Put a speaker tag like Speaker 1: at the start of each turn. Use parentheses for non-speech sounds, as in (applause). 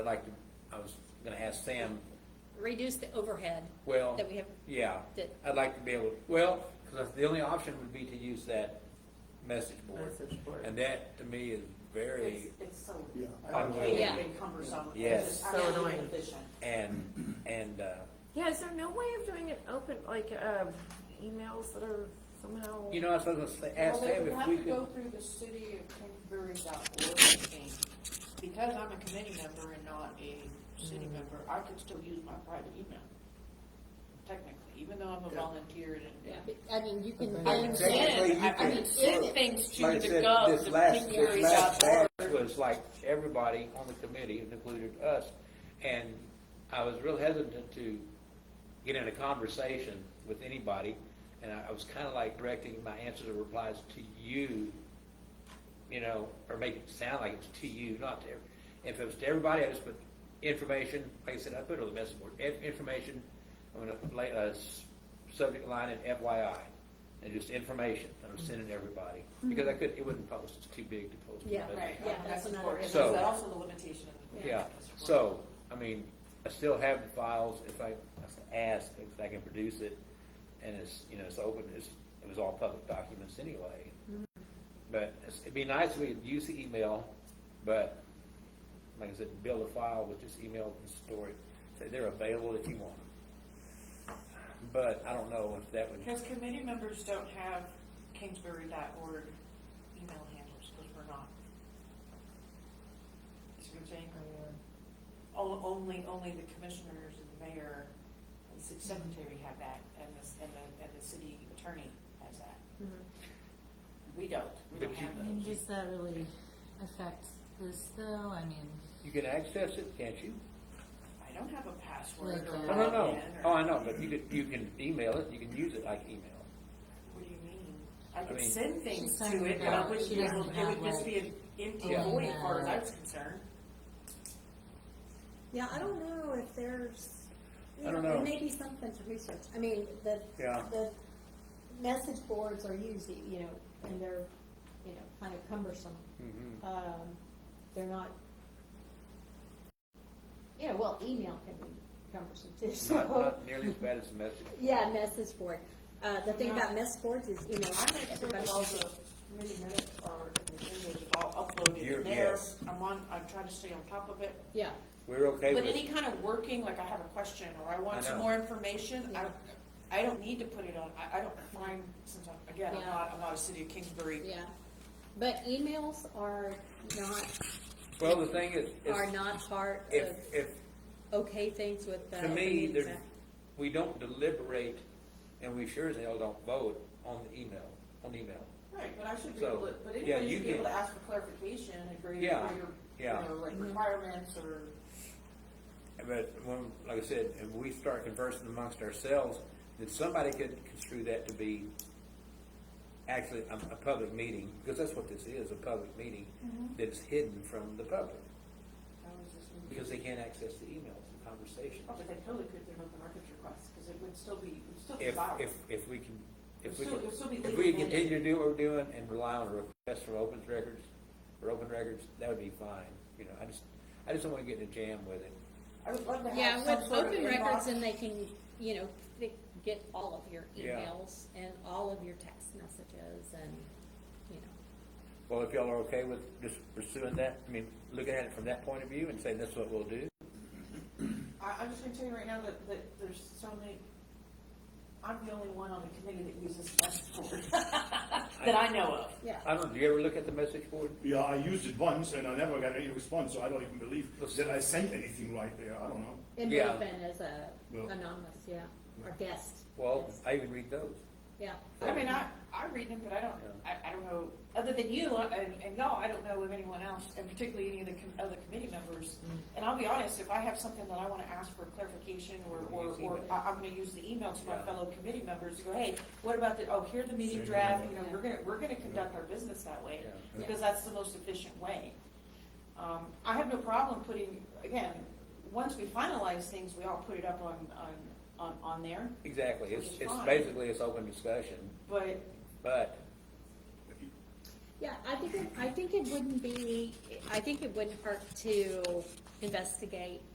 Speaker 1: I'd like, to- I was gonna ask Sam,
Speaker 2: reduce the overhead
Speaker 1: well,
Speaker 2: that we have,
Speaker 1: yeah,
Speaker 2: that-
Speaker 1: I'd like to be able, well, because the only option would be to use that message board.
Speaker 3: Message board.
Speaker 1: And that, to me, is
Speaker 4: It's,
Speaker 1: very,
Speaker 4: it's so,
Speaker 5: Yeah.
Speaker 1: Unwieldy.
Speaker 4: it's cumbersome.
Speaker 1: Yes.
Speaker 4: It's
Speaker 3: So annoying.
Speaker 4: inefficient.
Speaker 1: and, and, uh,
Speaker 3: Yeah, is there no way of doing it open, like, um, emails that are somehow?
Speaker 1: you know, I was gonna say, ask
Speaker 6: Well, they
Speaker 1: Sam
Speaker 6: would
Speaker 1: if
Speaker 6: have
Speaker 1: we
Speaker 6: to
Speaker 1: could.
Speaker 6: go through the city of Kingsbury.org thing. Because I'm a committee member and not a city
Speaker 1: Mm.
Speaker 6: member, I could still use my private email. Technically, even though I'm a volunteer and.
Speaker 2: I mean, you can.
Speaker 5: I
Speaker 6: And
Speaker 5: mean,
Speaker 2: use-
Speaker 5: technically,
Speaker 6: then,
Speaker 5: you
Speaker 6: I I mean,
Speaker 5: could-
Speaker 6: send things to
Speaker 1: Like I
Speaker 6: the
Speaker 1: said,
Speaker 6: gov,
Speaker 1: this
Speaker 6: the
Speaker 1: last- this last
Speaker 6: Kingsbury.org.
Speaker 1: batch Was like everybody on the committee, included us, and I was real hesitant to get in a conversation with anybody, and I, I was kinda like directing my answers or replies to you, you know, or make it sound like it's to you, not to, every- if it was to everybody, I just put information, like I said, I put it on the message board, in- information, I'm gonna lay a s- subject line in FYI, and just information, I'm sending to everybody, because I could, it wouldn't post, it's too big to post. on
Speaker 2: Yeah,
Speaker 1: the
Speaker 4: Right,
Speaker 1: message board.
Speaker 2: Yeah,
Speaker 4: yeah,
Speaker 2: that's
Speaker 4: that's
Speaker 2: another
Speaker 4: important, is
Speaker 1: issue.
Speaker 4: that also the limitation of the.
Speaker 1: Yeah, so, I mean, I still have the files, if I, I ask, if I can produce it, and it's, you know, it's open, it's, it was all public documents anyway. But it's- it'd be nice if we could use the email, but, like I said, build a file with just email and store it, say they're available if you want them. But I don't know if that would,
Speaker 6: Because committee members don't have Kingsbury.org email handles, because we're not. See what I'm saying?
Speaker 7: Oh,
Speaker 6: O- Only, only the commissioners and the mayor and the city
Speaker 7: Mm-hmm.
Speaker 6: secretary have that, and the, s- and the, and the city attorney has that.
Speaker 7: Mm-hmm.
Speaker 6: We don't, we don't
Speaker 1: But you-
Speaker 6: have
Speaker 7: I mean,
Speaker 6: those.
Speaker 7: does that really affect this though? I mean,
Speaker 1: you can access it, can't you?
Speaker 6: I don't have a password or
Speaker 7: Like, uh,
Speaker 1: No,
Speaker 6: a
Speaker 1: no, no,
Speaker 6: login or.
Speaker 1: oh, I know, but you could, you can email it, you can use it like (laughs) email.
Speaker 6: What do you mean? I
Speaker 1: I
Speaker 6: could
Speaker 1: mean-
Speaker 6: send things
Speaker 7: She's
Speaker 6: to
Speaker 7: talking
Speaker 6: it, but I
Speaker 7: about
Speaker 6: wouldn't
Speaker 7: she
Speaker 6: be able,
Speaker 7: doesn't
Speaker 6: it would
Speaker 7: have, like,
Speaker 6: just be an empty
Speaker 7: Yeah.
Speaker 6: void as far as I
Speaker 7: email.
Speaker 6: was concerned.
Speaker 8: Yeah, I don't know if there's, you
Speaker 1: I
Speaker 8: know,
Speaker 1: don't
Speaker 8: there
Speaker 1: know.
Speaker 8: may be something to research. I mean, the,
Speaker 1: Yeah.
Speaker 8: the message boards are used, you know, and they're, you know, kind of cumbersome.
Speaker 1: Mhm.
Speaker 8: Um, they're not, you know, well, email can be cumbersome too,
Speaker 1: It's Not, (laughs)
Speaker 8: so.
Speaker 1: not nearly as bad as the message.
Speaker 8: Yeah, message board. Uh, the thing about message boards is, you know,
Speaker 6: I make sure that
Speaker 8: everybody-
Speaker 6: all the committee minutes are, and the videos are all uploaded
Speaker 1: You're-
Speaker 6: in there.
Speaker 1: yes.
Speaker 6: I'm on, I'm trying to stay on top of it.
Speaker 8: yeah,
Speaker 1: We're okay
Speaker 6: But
Speaker 1: with
Speaker 6: any
Speaker 1: it.
Speaker 6: kind of working, like I have a question or I want
Speaker 1: I
Speaker 6: some
Speaker 1: know.
Speaker 6: more information, I,
Speaker 8: Yeah.
Speaker 6: I don't need to put it on, I, I don't find, since I'm, again, I'm
Speaker 8: Yeah.
Speaker 6: not, I'm not a city of Kingsbury.
Speaker 8: yeah. But emails are not,
Speaker 1: Well, the thing is, is
Speaker 8: are not part
Speaker 1: if,
Speaker 8: of
Speaker 1: if,
Speaker 8: okay things with the.
Speaker 1: to
Speaker 8: Open
Speaker 1: me,
Speaker 8: Meetings
Speaker 1: there's,
Speaker 8: Act.
Speaker 1: we don't deliberate, and we sure as hell don't vote on the email, on email.
Speaker 6: Right, but I should
Speaker 1: be So, able to- but yeah, anybody you should be able can- to
Speaker 6: ask for clarification and agree
Speaker 1: Yeah, yeah.
Speaker 6: like requirements or.
Speaker 1: But when, like I said, if we start conversing amongst ourselves, then somebody could construe that to be actually a, a public meeting, because that's what this is, a public meeting
Speaker 8: Mm-hmm.
Speaker 1: that's hidden from the public, because they can't access the emails, the conversation.
Speaker 6: Oh, but they totally could do an open records request, because it would still be, it would still be
Speaker 1: if,
Speaker 6: valid.
Speaker 1: if, if we can, if we
Speaker 6: It'll
Speaker 1: can,
Speaker 6: still- it'll still be
Speaker 1: if we
Speaker 6: legal
Speaker 1: continue to do what we're doing and rely on requests from open records, for open records, that would be fine, you know, I just, I just don't wanna get in a jam with it.
Speaker 6: I would love to
Speaker 2: Yeah,
Speaker 6: have some
Speaker 2: with
Speaker 6: sort of
Speaker 2: open records,
Speaker 6: inbox.
Speaker 2: and they can, you know, they get all of your
Speaker 1: Yeah.
Speaker 2: emails and all of your text messages and, you know,
Speaker 1: Well, if y'all are okay with just pursuing that, I mean, looking at it from that point of view and saying that's what we'll do,
Speaker 6: I, I'm just gonna tell you right now that, that there's so many, I'm the only one on the committee that uses Flexboard, (laughs) that I know of.
Speaker 8: Yeah.
Speaker 1: I don't, do you ever look at the message board?
Speaker 5: Yeah, I used it once and I never got any response, so I don't even believe that I sent anything right there. I don't know.
Speaker 8: And
Speaker 1: Yeah.
Speaker 8: open as a
Speaker 5: Well-
Speaker 8: anonymous, yeah, or guest,
Speaker 1: Well, I even read those.
Speaker 8: yeah.
Speaker 6: I mean, I, I read them, but I don't, I, I don't know, other than you and, and y'all, I don't know of anyone else, and particularly any of the com- other committee members. And I'll be honest, if I have something that I wanna ask for clarification or, or,
Speaker 1: Use
Speaker 6: or
Speaker 1: email.
Speaker 6: I, I'm gonna use the email to my
Speaker 1: Yeah.
Speaker 6: fellow committee members, to go, hey, what about the, oh, here's the meeting
Speaker 5: Send
Speaker 6: draft, you
Speaker 5: email.
Speaker 6: know, we're gonna, we're gonna conduct our business that way,
Speaker 1: Yeah.
Speaker 6: because that's the most efficient way. Um, I have no problem putting, again, once we finalize things, we all put it up on, on, on, on there,
Speaker 1: Exactly, it's,
Speaker 6: Which is
Speaker 1: it's
Speaker 6: fine.
Speaker 1: basically, it's open discussion,
Speaker 6: but
Speaker 1: but,
Speaker 2: yeah, I think, it- I think it wouldn't be, I think it wouldn't hurt to investigate